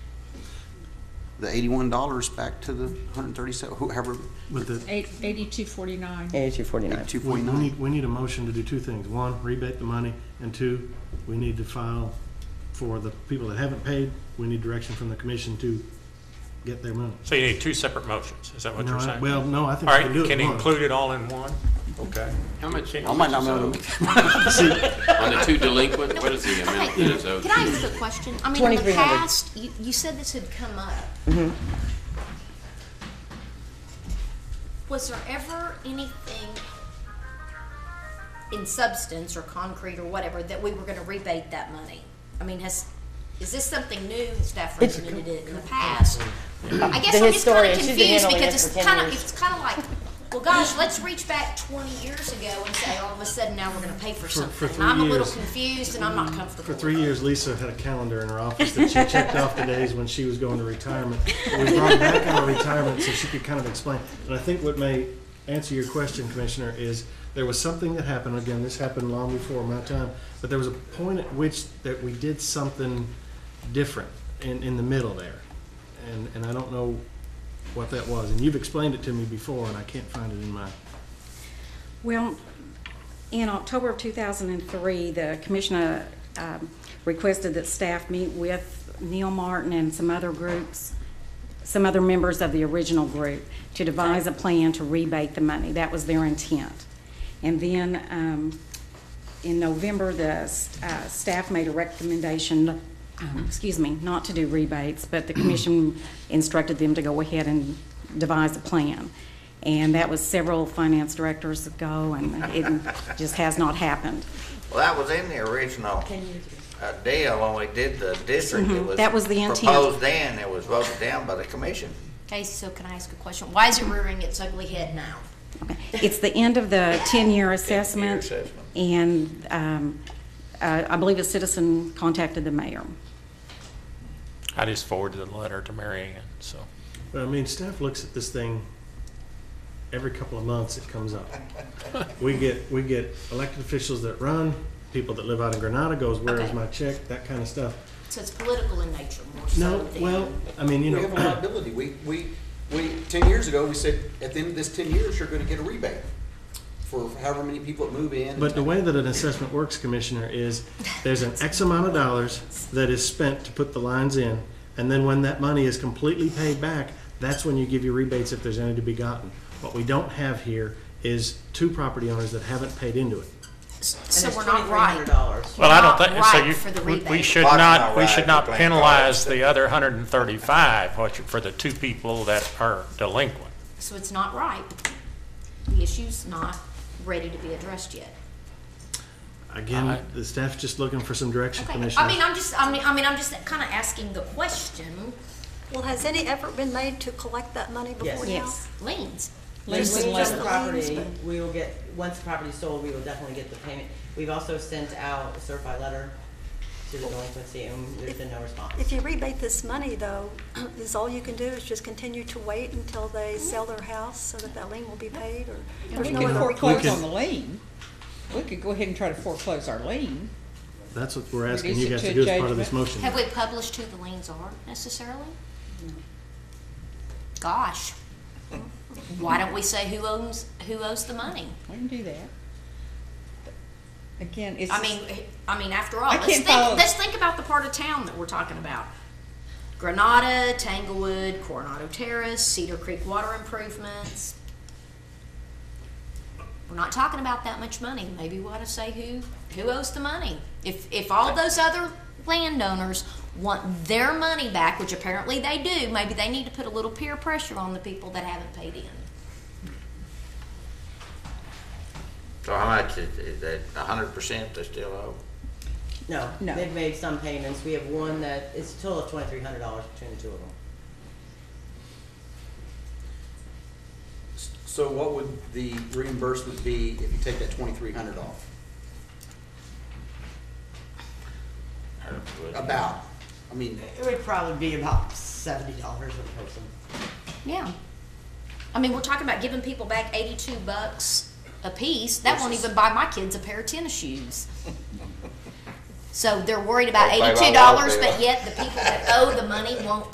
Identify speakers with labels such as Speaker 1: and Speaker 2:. Speaker 1: the eighty-one dollars back to the hundred and thirty-seven, whoever,
Speaker 2: But the,
Speaker 3: Eight, eighty-two forty-nine.
Speaker 4: Eighty-two forty-nine.
Speaker 1: two
Speaker 2: we we
Speaker 1: forty-nine.
Speaker 2: need, we need a motion to do two things. One, rebate the money, and two, we need to file for the people that haven't paid, we need direction from the commission to get their money.
Speaker 5: So you need two separate motions, is that what
Speaker 2: No,
Speaker 5: you're
Speaker 2: I-
Speaker 5: saying?
Speaker 2: Well, no, I
Speaker 5: All
Speaker 2: think we
Speaker 5: right,
Speaker 2: can do it
Speaker 5: can
Speaker 2: at
Speaker 5: you
Speaker 2: once.
Speaker 5: include it all in one? Okay.
Speaker 6: How much?
Speaker 1: I might not be able to make that.
Speaker 6: On the two delinquent, what is the amount that is
Speaker 7: Can
Speaker 6: owed?
Speaker 7: I ask a question? I mean, in the
Speaker 4: 2300.
Speaker 7: past, you, you said this had come up.
Speaker 4: Mm-hmm.
Speaker 7: Was there ever anything in substance or concrete or whatever that we were gonna rebate that money? I mean, has, is this something new, staff recommended it in the past? I guess
Speaker 4: The
Speaker 7: I'm just kinda
Speaker 4: historian, she's been
Speaker 7: confused
Speaker 4: handling
Speaker 7: because
Speaker 4: this
Speaker 7: it's
Speaker 4: for 10
Speaker 7: kinda,
Speaker 4: years.
Speaker 7: it's kinda like, well, gosh, let's reach back twenty years ago and say, all of a sudden now we're gonna pay for
Speaker 2: For- for
Speaker 7: something. And I'm a
Speaker 2: three
Speaker 7: little
Speaker 2: years.
Speaker 7: confused and I'm not comfortable
Speaker 2: For
Speaker 7: with
Speaker 2: three
Speaker 7: it.
Speaker 2: years, Lisa had a calendar in her office that she checked off the days when she was going to retirement. We brought her back out of retirement so she could kind of explain. And I think what may answer your question, Commissioner, is there was something that happened, again, this happened long before my time, but there was a point at which that we did something different in, in the middle there. And, and I don't know what that was. And you've explained it to me before, and I can't find it in my,
Speaker 8: Well, in October of 2003, the commissioner um, requested that staff meet with Neil Martin and some other groups, some other members of the original group, to devise a plan to rebate the money. That was their intent. And then um, in November, the uh, staff made a recommendation, um, excuse me, not to do rebates, but the commission instructed them to go ahead and devise a plan. And that was several finance directors ago, and it just has not happened.
Speaker 9: Well, that was in the original uh, deal, only did the district.
Speaker 10: Mm-hmm.
Speaker 9: It was
Speaker 8: That was the intent.
Speaker 9: Proposed then, it was voted down by the commission.
Speaker 7: Okay, so can I ask a question? Why is it rearing its ugly head now?
Speaker 8: It's the end of the 10-year assessment.
Speaker 9: assessment.
Speaker 8: And um, uh, I believe a citizen contacted the mayor.
Speaker 5: I just forwarded the letter to Mary Ann, so.
Speaker 2: But I mean, staff looks at this thing every couple of months. It comes up. we get we get elected officials that run, people that live out in Granada goes, "Where is
Speaker 7: Okay.
Speaker 2: my check?" That kind of stuff.
Speaker 7: So it's political in nature more so
Speaker 2: No,
Speaker 7: than.
Speaker 2: well, I mean, you
Speaker 1: We have a
Speaker 2: know,
Speaker 1: liability. We, we, we, ten years ago, we said, at the end of this ten years, you're gonna get a rebate for however many people that move in.
Speaker 2: but the way that an assessment works, Commissioner, is there's an X amount of dollars that is spent to put the lines in, and then when that money is completely paid back, that's when you give your rebates if there's any to be gotten. What we don't have here is two property owners that haven't paid into it.
Speaker 7: So we're not right.
Speaker 10: dollars.
Speaker 7: We're
Speaker 5: Well, I don't think,
Speaker 7: not
Speaker 5: so
Speaker 7: right for the
Speaker 5: you, we- we
Speaker 7: rebate.
Speaker 5: should
Speaker 9: Bottom
Speaker 5: not,
Speaker 9: not
Speaker 5: we
Speaker 9: right,
Speaker 5: should not
Speaker 9: we blame
Speaker 5: penalize
Speaker 9: dollars.
Speaker 5: the other hundred and thirty-five, which, for the two people that are delinquent.
Speaker 7: So it's not right. The issue's not ready to be addressed yet.
Speaker 2: Again, the staff's just looking for some direction,
Speaker 7: Okay,
Speaker 2: Commissioner.
Speaker 7: I mean, I'm just, I mean, I mean, I'm just kinda asking the question,
Speaker 11: Well, has any effort been made to collect that money before
Speaker 10: Yes.
Speaker 11: now?
Speaker 8: Yes.
Speaker 7: liens.
Speaker 10: There's
Speaker 3: Liens and
Speaker 10: liens on the
Speaker 3: letters.
Speaker 10: property, we will get, once the property's sold, we will definitely get the payment. We've also sent out a certified letter to the delinquency, and there's been no response.
Speaker 11: If you rebate this money, though, is all you can do is just continue to wait until they
Speaker 7: Mm-hmm.
Speaker 11: sell their house so that that lien will be paid, or
Speaker 3: We
Speaker 11: there's no
Speaker 3: could
Speaker 11: other
Speaker 3: foreclose
Speaker 2: can-
Speaker 3: on the lien. We could go ahead and try to foreclose our lien.
Speaker 2: That's what we're asking
Speaker 3: Reduce
Speaker 2: you
Speaker 3: it
Speaker 2: guys
Speaker 3: to
Speaker 2: to
Speaker 3: a
Speaker 2: do as part of this motion.
Speaker 7: Have we published who the liens are necessarily? Gosh. Why don't we say who owns, who owes the money?
Speaker 3: We can do that. Again, it's.
Speaker 7: I mean, I mean, after all,
Speaker 3: I
Speaker 7: let's
Speaker 3: can't
Speaker 7: think,
Speaker 3: follow-
Speaker 7: let's think about the part of town that we're talking about. Granada, Tanglewood, Coronado Terrace, Cedar Creek Water Improvements. We're not talking about that much money. Maybe we ought to say who, who owes the money. If, if all those other landowners want their money back, which apparently they do, maybe they need to put a little peer pressure on the people that haven't paid in.
Speaker 9: So how much is, is that, a hundred percent they still owe?
Speaker 10: No,
Speaker 3: No.
Speaker 10: they've made some payments, we have one that, it's a total of twenty-three hundred dollars between the two of them.
Speaker 1: So what would the reimbursement be if you take that twenty-three hundred off?
Speaker 9: Or was-
Speaker 1: About, I mean,
Speaker 10: It would probably be about seventy dollars a person.
Speaker 7: Yeah. I mean, we're talking about giving people back eighty-two bucks a piece. That won't even buy my kids a pair of tennis shoes. So they're worried about
Speaker 9: Don't pay my
Speaker 7: eighty-two dollars,
Speaker 9: water bill.
Speaker 7: but yet the people that owe the money won't